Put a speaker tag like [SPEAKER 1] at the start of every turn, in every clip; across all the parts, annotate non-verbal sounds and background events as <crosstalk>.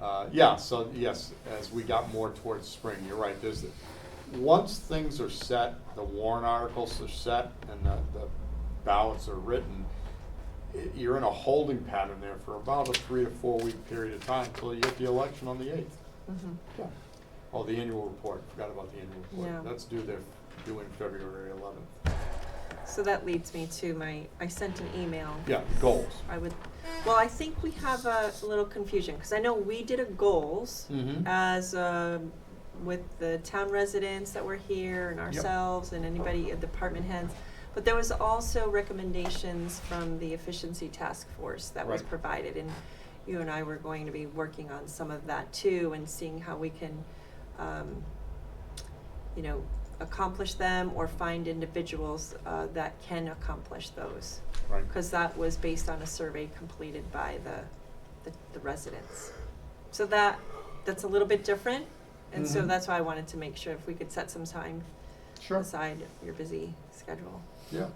[SPEAKER 1] Uh, Yeah, so, yes, as we got more towards spring, you're right, there's, the- once things are set, the warrant articles are set, and the, the ballots are written, i- you're in a holding pattern there for about a three to four week period of time until you get the election on the eighth.
[SPEAKER 2] Mhm.
[SPEAKER 1] Yeah. Oh, the annual report, forgot about the annual report.
[SPEAKER 2] Yeah.
[SPEAKER 1] That's due there, due in February eleventh.
[SPEAKER 2] So that leads me to my, I sent an email.
[SPEAKER 1] Yeah, goals.
[SPEAKER 2] I would, well, I think we have a little confusion, because I know we did a goals
[SPEAKER 1] Mm-hmm.
[SPEAKER 2] as, um, with the town residents that were here and
[SPEAKER 1] Yep.
[SPEAKER 2] ourselves and anybody, uh, department heads. But there was also recommendations from the efficiency task force that was
[SPEAKER 1] Right.
[SPEAKER 2] provided, and you and I were going to be working on some of that too, and seeing how we can, um, you know, accomplish them or find individuals, uh, that can accomplish those
[SPEAKER 1] Right.
[SPEAKER 2] because that was based on a survey completed by the, the, the residents. So that, that's a little bit different, and so
[SPEAKER 3] Mm-hmm.
[SPEAKER 1] Mhm.
[SPEAKER 2] that's why I wanted to make sure if we could set some time
[SPEAKER 1] Sure.
[SPEAKER 2] aside your busy schedule
[SPEAKER 1] Yeah.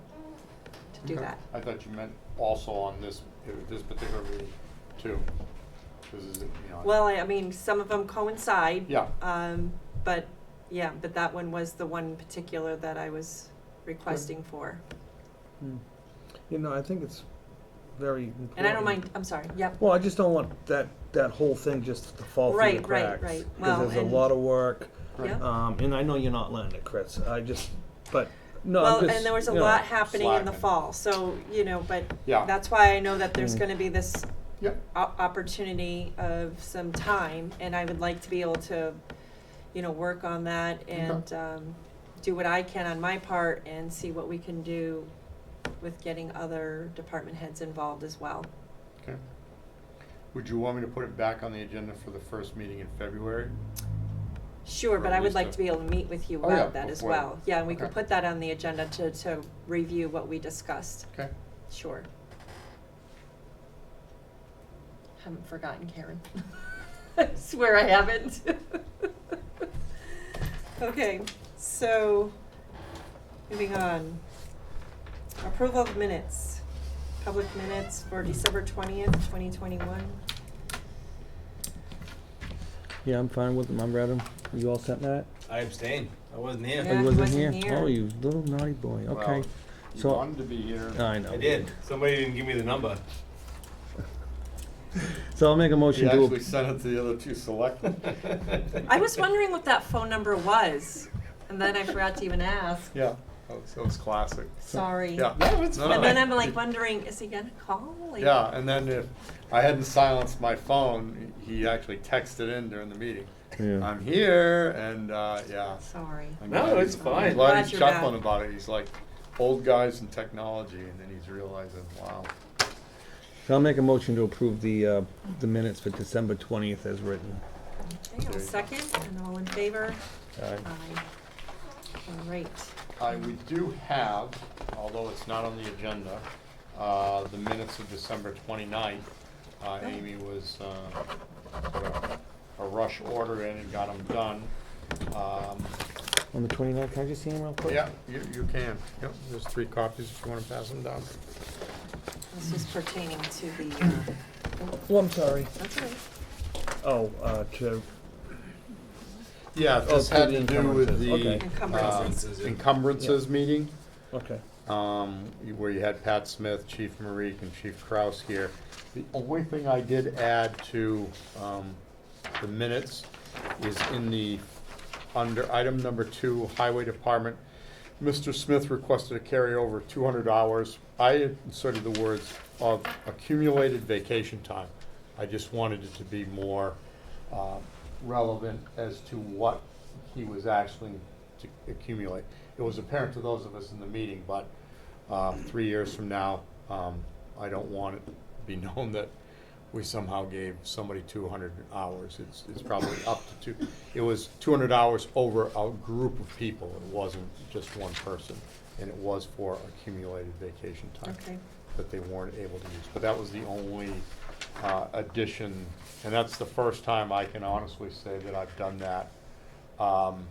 [SPEAKER 2] to do
[SPEAKER 1] Okay.
[SPEAKER 2] that.
[SPEAKER 1] I thought you meant also on this, uh, this particular meeting too. This is, you know.
[SPEAKER 2] Well, I, I mean, some of them coincide.
[SPEAKER 1] Yeah.
[SPEAKER 2] Um, but, yeah, but that one was the one particular that I was requesting for.
[SPEAKER 3] Hmm. You know, I think it's very important.
[SPEAKER 2] And I don't mind, I'm sorry, yep,
[SPEAKER 3] Well, I just don't want that, that whole thing just to fall through the
[SPEAKER 2] Right, right,
[SPEAKER 3] cracks.
[SPEAKER 2] right. Well,
[SPEAKER 3] Because there's a
[SPEAKER 2] and-
[SPEAKER 3] lot of work,
[SPEAKER 1] Right.
[SPEAKER 2] yeah.
[SPEAKER 3] um, and I know you're not letting it, Chris, I just, but, no, I'm
[SPEAKER 2] Well,
[SPEAKER 3] just,
[SPEAKER 2] and there was a
[SPEAKER 3] you know,
[SPEAKER 2] lot happening in the
[SPEAKER 1] slacking.
[SPEAKER 2] fall, so, you know, but
[SPEAKER 1] Yeah.
[SPEAKER 2] that's why I know that there's
[SPEAKER 3] Mm.
[SPEAKER 2] gonna be this
[SPEAKER 1] Yep.
[SPEAKER 2] o- opportunity of some time, and I would like to be able to, you know, work on that and, um, do what I can on my part and see what we can do with getting other department heads involved as well.
[SPEAKER 1] Okay. Would you want me to put it back on the agenda for the first meeting in February?
[SPEAKER 2] Sure, but
[SPEAKER 1] Or at
[SPEAKER 2] I would
[SPEAKER 1] least
[SPEAKER 2] like
[SPEAKER 1] a-
[SPEAKER 2] to be able to meet with you
[SPEAKER 1] Oh, yeah,
[SPEAKER 2] about that as
[SPEAKER 1] before.
[SPEAKER 2] well. Yeah, and we can
[SPEAKER 1] Okay.
[SPEAKER 2] put that on the agenda to, to review what we discussed,
[SPEAKER 1] Okay.
[SPEAKER 2] sure. Haven't forgotten Karen. <laughs> I swear I haven't. <laughs> Okay, so, moving on. Approval of minutes, public minutes for December twentieth, twenty twenty-one.
[SPEAKER 3] Yeah, I'm fine with them, I'm ready, you all set, Matt?
[SPEAKER 4] I abstain. I wasn't here.
[SPEAKER 3] Oh,
[SPEAKER 2] Yeah,
[SPEAKER 3] you
[SPEAKER 2] he
[SPEAKER 3] wasn't
[SPEAKER 2] wasn't here.
[SPEAKER 3] Oh, you little naughty boy, okay,
[SPEAKER 1] Well, You
[SPEAKER 3] so-
[SPEAKER 1] wanted to be here.
[SPEAKER 3] I know.
[SPEAKER 4] I did. Somebody didn't give me the number. <laughs>
[SPEAKER 3] So I'll make a
[SPEAKER 1] He
[SPEAKER 3] motion to,
[SPEAKER 1] actually
[SPEAKER 3] ap-
[SPEAKER 1] sent it to the other two selectmen. <laughs>
[SPEAKER 2] I was wondering what that phone number was, and then I forgot to even ask.
[SPEAKER 1] Yeah, Oh, so it's classic.
[SPEAKER 2] Sorry.
[SPEAKER 1] Yeah. No, it's
[SPEAKER 2] And then
[SPEAKER 1] <laughs> fine.
[SPEAKER 2] I'm like wondering, is he gonna call? Like,
[SPEAKER 1] Yeah, and then if I hadn't silenced my phone, he actually texted in during the meeting.
[SPEAKER 3] Yeah.
[SPEAKER 1] I'm here, and uh, yeah.
[SPEAKER 2] Sorry.
[SPEAKER 1] I'm
[SPEAKER 4] No,
[SPEAKER 1] glad
[SPEAKER 4] it's
[SPEAKER 1] he's-
[SPEAKER 4] fine.
[SPEAKER 1] I'm glad
[SPEAKER 2] Glad
[SPEAKER 1] he's
[SPEAKER 2] you're back.
[SPEAKER 1] chuckling about it. He's like, old guys and technology, and then he's realizing, wow.
[SPEAKER 3] so I'll make a motion to approve the, uh, the minutes for December twentieth as written.
[SPEAKER 2] Okay,
[SPEAKER 1] There
[SPEAKER 2] I'll
[SPEAKER 1] you go.
[SPEAKER 2] second, and all in favor?
[SPEAKER 3] Aye.
[SPEAKER 2] Aye. All right.
[SPEAKER 1] I, Uh, we do have, although it's not on the agenda, uh, the minutes of December 29th. Uh, Amy was, uh, sort of a rush order in and got them done. Um,
[SPEAKER 3] On the twenty-ninth, can I just see him real quick?
[SPEAKER 1] Yeah, you, you can. Yep, there's three copies if you wanna pass them down.
[SPEAKER 2] This is pertaining to the, uh,
[SPEAKER 3] Well, Oh, I'm sorry.
[SPEAKER 2] that's all right.
[SPEAKER 3] Oh, uh, to,
[SPEAKER 1] Yeah,
[SPEAKER 3] Oh,
[SPEAKER 1] this
[SPEAKER 3] to
[SPEAKER 1] had to
[SPEAKER 3] the
[SPEAKER 1] do with
[SPEAKER 3] encumbrances,
[SPEAKER 1] the.
[SPEAKER 3] okay.
[SPEAKER 4] Encumbrances,
[SPEAKER 1] uh,
[SPEAKER 4] yeah.
[SPEAKER 1] Encumbrances meeting.
[SPEAKER 3] okay.
[SPEAKER 1] um, where you had Pat Smith, Chief Marik, and Chief Kraus here. The only thing I did add to, um, the minutes is in the, under item number two, Highway Department. Mr. Smith requested a carryover two hundred hours. I inserted the words of accumulated vacation time. I just wanted it to be more, uh, relevant as to what he was actually to accumulate. It was apparent to those of us in the meeting, but uh, three years from now, um, I don't want it to be <laughs> known that we somehow gave somebody 200 hours. It's, it's probably up to two, it was 200 hours over a group of people. It wasn't just one person, and it was for accumulated vacation time
[SPEAKER 2] Okay.
[SPEAKER 1] that they weren't able to use. But that was the only uh, addition, and that's the first time I can honestly say that I've done that. Um,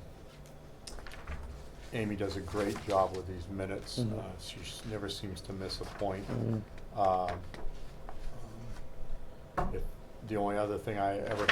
[SPEAKER 1] Amy does a great job with these minutes.
[SPEAKER 3] Mhm.
[SPEAKER 1] Uh, She s- never seems to miss a point.
[SPEAKER 3] Mm.
[SPEAKER 1] Um, if- The only other thing I ever